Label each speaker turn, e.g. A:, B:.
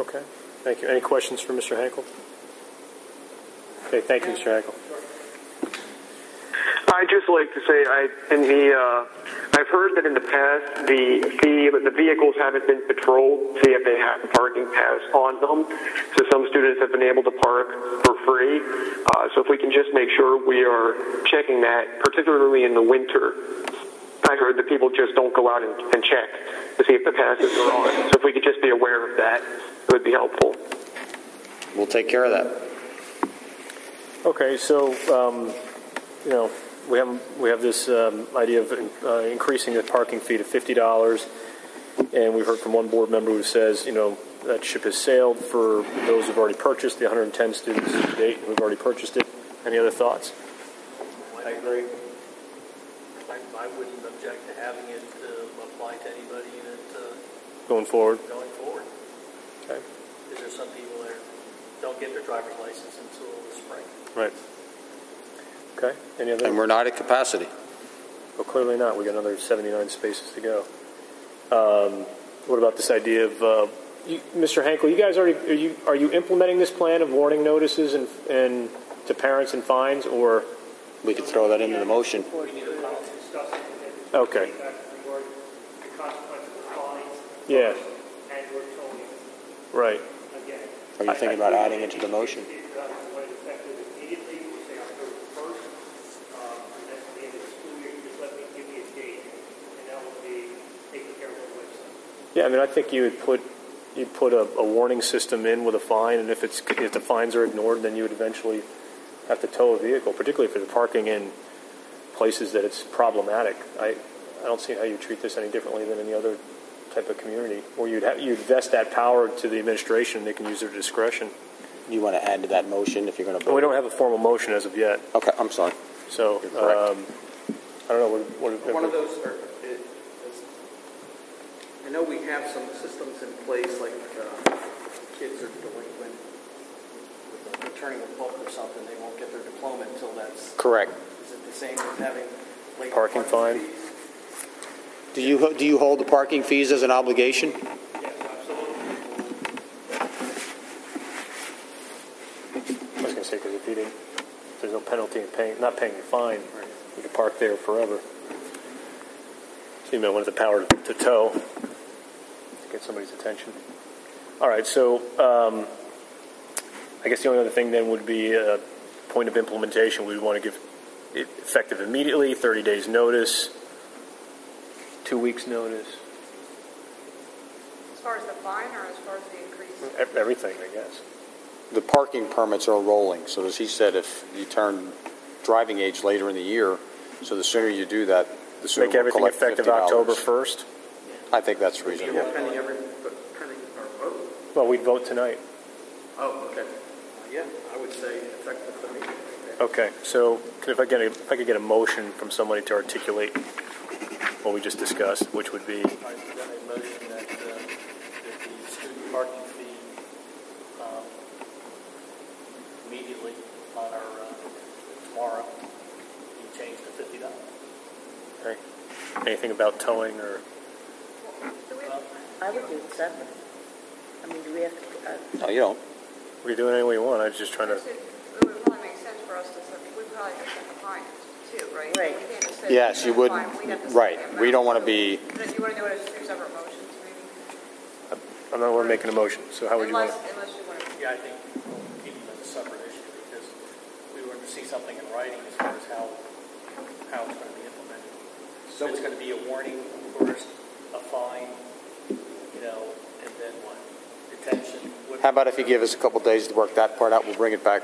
A: Okay, thank you. Any questions for Mr. Hankel? Okay, thank you, Mr. Hankel.
B: I just like to say, I in the uh, I've heard that in the past the the the vehicles haven't been patrolled to see if they have a parking pass on them. So some students have been able to park for free. Uh, so if we can just make sure we are checking that, particularly in the winter. I heard that people just don't go out and, and check to see if the passes are on. So if we could just be aware of that, it would be helpful.
C: We'll take care of that.
A: Okay, so, um, you know, we have, we have this um, idea of uh, increasing the parking fee to fifty dollars. And we've heard from one board member who says, you know, that ship has sailed for those who've already purchased, the hundred and ten students to date who've already purchased it. Any other thoughts?
D: I agree. I, I wouldn't object to having it uh, apply to anybody that, uh,
A: Going forward?
D: going forward.
A: Okay.
D: Because there's some people that don't get their driver's license until the spring.
A: Right. Okay, any other?
C: And we're not at capacity.
A: Well, clearly not. We got another 79 spaces to go. Um, what about this idea of, uh, you, Mr. Hankel? You guys already are you are you implementing this plan of warning notices and and to parents and fines, or
C: We could throw that into the motion.
A: Okay.
E: The consequence of fines.
A: Yeah.
E: And we're told
A: right?
E: again.
C: Are you thinking about adding it to the motion?
E: It's, uh, what is effective immediately, we say October first, um, and that's the end of the school year, you just let me give me a date, and that will be taken care of on the website.
A: Yeah, I mean, I think you would put you put a, a warning system in with a fine, and if it's if the fines are ignored, then you would eventually have to tow a vehicle, particularly if they're parking in places that it's problematic. I I don't see how you treat this any differently than any other type of community, where you'd have, you'd vest that power to the administration, and they can use their discretion.
C: You want to add to that motion if you're going to
A: But we
C: vote?
A: don't have a formal motion as of yet,
C: Okay, I'm sorry.
A: so
C: You're correct.
A: um, I don't know what, what
F: One of those are, it- it's- I know we have some systems in place, like uh, kids are delinquent, returning a book or something, they won't get their diploma until that's,
C: Correct.
F: is it the same as having late
A: Parking
F: parking
A: fine.
F: fees?
C: Do you, ho- do you hold the parking fees as an obligation?
A: I was going to say because if you didn't, if there's no penalty in paying, not paying the fine, you could park there forever. So you might want the power to, to tow to get somebody's attention. All right, so um, I guess the only other thing then would be a point of implementation. We'd want to give it effective immediately, 30 days notice, two weeks notice,
G: As far as the fine or as far as the increase?
A: e- everything, I guess.
C: The parking permits are rolling, so as he said, if you turn driving age later in the year, so the sooner you do that, the sooner
A: Make
C: we'll
A: everything
C: collect
A: effective
C: $50.
A: October 1st.
C: I think that's
F: Yeah,
C: reasonable.
F: Pending every, pending our vote.
A: Well, we'd vote tonight.
F: Oh, okay. Yeah, I would say effective immediately.
A: Okay, so could- if I get a, if I could get a motion from somebody to articulate what we just discussed, which would be,
D: I present a motion that, uh, that the student parking fee, um, immediately on our, uh, tomorrow, be changed to fifty dollars.
A: okay, anything about towing or,
G: Do we-
H: I would do seven. I mean, do we have to, uh,
C: No, you don't.
A: we can do it any way you want, I was just trying to,
G: It would probably make sense for us to, set- we probably have to set the fine too, right?
H: Right.
G: We can't just say
C: Yes, you
G: we're
C: wouldn't,
G: gonna fine, we'd have to set the
C: right. We
G: amount.
C: don't want to be,
G: But if you want to do it as two separate motions, maybe?
A: I'm not, we're making a motion, so how would you want
G: Unless,
A: to?
G: unless you want to,
D: Yeah, I think we'll keep it as a separate issue because we want to see something in writing as far as how, how it's going to be implemented. So it's going to be a warning first, a fine, you know, and then what? Detention? what-
C: how about if you give us a couple days to work that part out, we'll bring it back